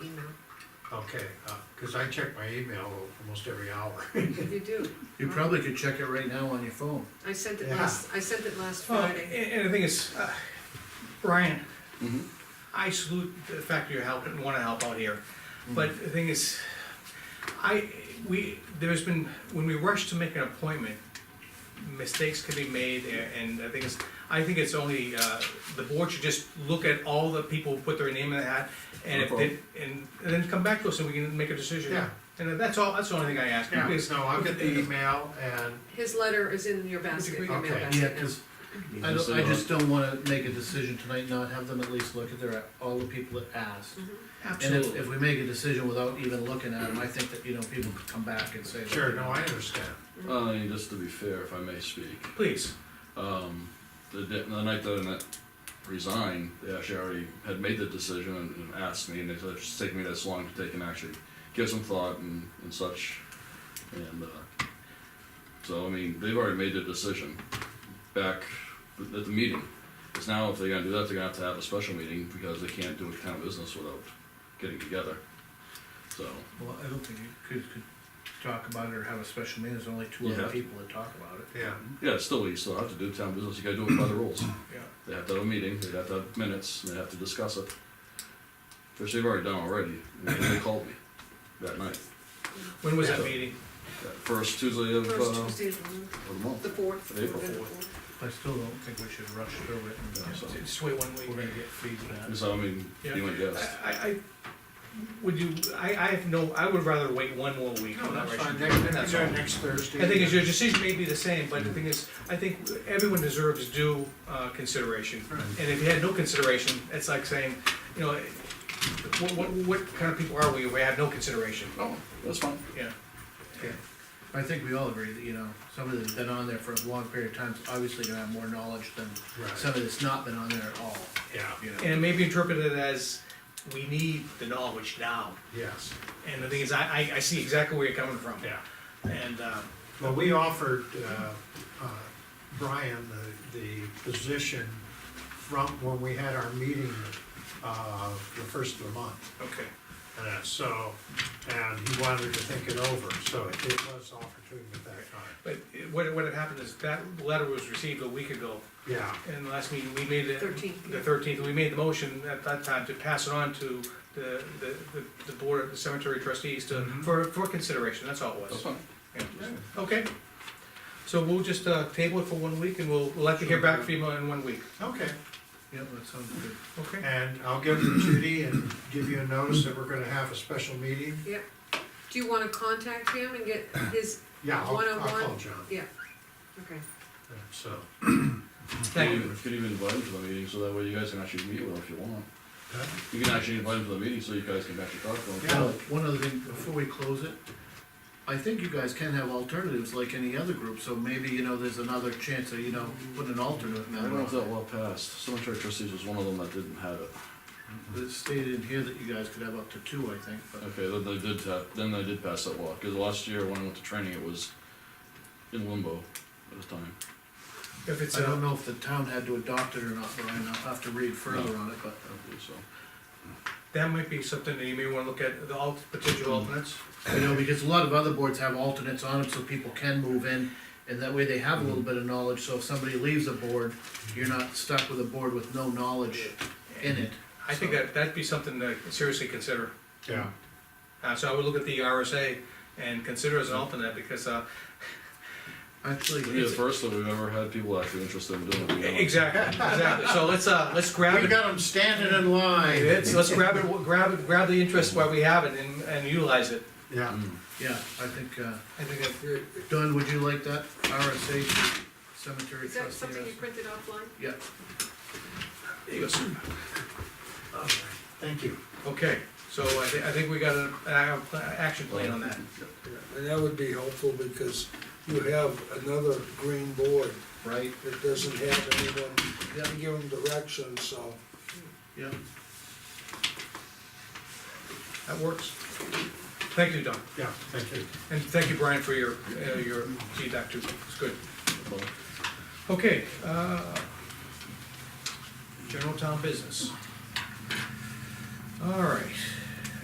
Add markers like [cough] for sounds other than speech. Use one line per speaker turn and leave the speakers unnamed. Okay, uh 'cause cause I check my email almost every hour.
You
[laughs]
do.
You probably could check it right now on your phone.
I sent it
Yeah.
last, I sent it last
Oh,
Well,
Friday.
And, and the thing is, uh, Brian,
Mhm.
I salute the fact that you're helping, wanna help out here,
Mm-hmm.
but the thing is, I, we, there's been, when we rush to make an appointment, mistakes can be made, a- and the thing is, I think it's only, uh, the board should just look at all the people who put their name in the hat, and if they, and, and then come back to us and we can make a decision.
Yeah.
And that's all, that's the only thing I ask,
Yeah,
because,
no, I'll get the email and,
His letter is in your basket, your mail
Okay.
basket.
Yeah, cause I don't, I just don't wanna make a decision tonight, not have them at least look at their, all the people that asked. And if,
absolutely,
if we make a decision without even looking at them, I think that, you know, people could come back and say. that-
sure, no, I understand.
Well, I mean, just to be fair, if I may speak,
please,
um, the, di- the night that I resigned, they actually already had made the decision and, and asked me, and they said it's just taking me this long to take and actually give some thought and, and such. And uh, so, I mean, they've already made their decision back at the meeting. Because now, if they're going to do that, they're going to have to have a special meeting because they can't do a town business without getting together. So,
Well, I don't think you could, could talk about it or have a special meeting, there's only two other
Yeah.
people that talk about it.
Yeah,
yeah, still, you still have to do town business. You got to do it by the rules.
yeah.
They have to have a meeting, they have to have minutes, and they have to discuss it. Which they've already done already, and they called me that night,
When was that
Yeah.
meeting?
that first Tuesday of, uh,
First
of
Tuesday of the month, the
the month.
fourth.
April
November
fourth.
fourth.
I still don't think we should rush through it
Yeah, so-
and
Just wait one week.
we're gonna get feedback.
And So, I mean,
Yeah.
you went guess.
I, I, would you, I, I have no, I would rather wait one more week.
no, that's
Rush.
fine, next,
That's
next-
all.
next Thursday.
I think is your decision may be the same, but the thing is, I think everyone deserves due, uh, consideration.
Right.
And if you had no consideration, it's like saying, you know, what, what, what kind of people are we, if we have no consideration?
Oh, that's fine.
Yeah,
I think we all agree that, you know, somebody that's been on there for a long period of time is obviously gonna have more knowledge than
Right.
somebody that's not been on there at all,
Yeah,
you know.
and it may be interpreted as, we need the knowledge now.
yes,
And the thing is, I, I, I see exactly where you're coming from.
yeah.
And, uh,
Well, we offered, uh, uh, Brian the, the position from when we had our meeting, uh, the first of the month.
okay.
And so, and he wanted to think it over, so it was offered to him at that time.
But it- what, what had happened is that letter was received a week ago,
Yeah,
and last meeting, we made it.
13th, yeah.
The thirteenth, we made the motion at that time to pass it on to the, the, the- the board of the cemetery trustees to,
Mhm.
for, for consideration, that's all it
That's
was.
fine.
Yeah. Okay, so we'll just, uh, table it for one week, and we'll, we'll let you hear back from you in one week,
okay.
Yep, that sounds good.
okay?
And I'll give it to Judy and give you a notice that we're gonna have a special meeting.
Yep. Do you wanna contact him and get his,
Yeah, I'll, I'll
One-on-one?
call John,
yeah, okay.
so.
Thank
You
you,
can even invite him to the meeting, so that way you guys can actually meet with him if you want.
uh,
You can actually invite him to the meeting, so you guys can actually talk to him.
Yeah.
Now, one other thing, before we close it, I think you guys can have alternatives like any other group, so maybe, you know, there's another chance that, you know, put an alternate
I don't know
member
if that
on.
well passed, cemetery trustees was one of them that didn't have it.
It stated in here that you guys could have up to two, I think, but.
Okay, then they did, ta- then they did pass that law, because last year when I went to training, it was in limbo at the time.
if it's,
I don't
uh,
know if the town had to adopt it or not, Brian, I'll have to read further
No.
on it, but.
I don't believe so.
that might be something that you may wanna look at, the alt, potential alternates.
You know, because a lot of other boards have alternates on them, so people can move in, and that way they have a
Mm-hmm.
little bit of knowledge, so if somebody leaves a board, you're not stuck with a board with no knowledge in it.
I think that, that'd be something to seriously consider.
Yeah,
Uh, so I would look at the RSA and consider as an alternate, because, uh,
Actually,
It'd be the
it's-
first that we've ever had people actually interested in doing it. you know.
exactly, exactly, so let's, uh, let's grab
we
it.
got them standing in line.
Let's, let's grab it, grab it, grab the interest while we have it and, and utilize it.
Yeah,
Mm.
yeah, I think, uh,
I think that's good.
Don, would you like that RSA cemetery
Is that something you
trustee?
printed offline?
Yeah,
There you go, sir.
thank you.
Okay, so I thi- I think we got an, an action plan on that.
And that would be helpful because you have another green board
right,
that doesn't have anyone
yeah,
to give them direction, so.
yeah.
That works. Thank you, Don,
Yeah, thank you.
and thank you, Brian, for your, uh, your feedback too, it's good. Okay, uh, general town business. All right.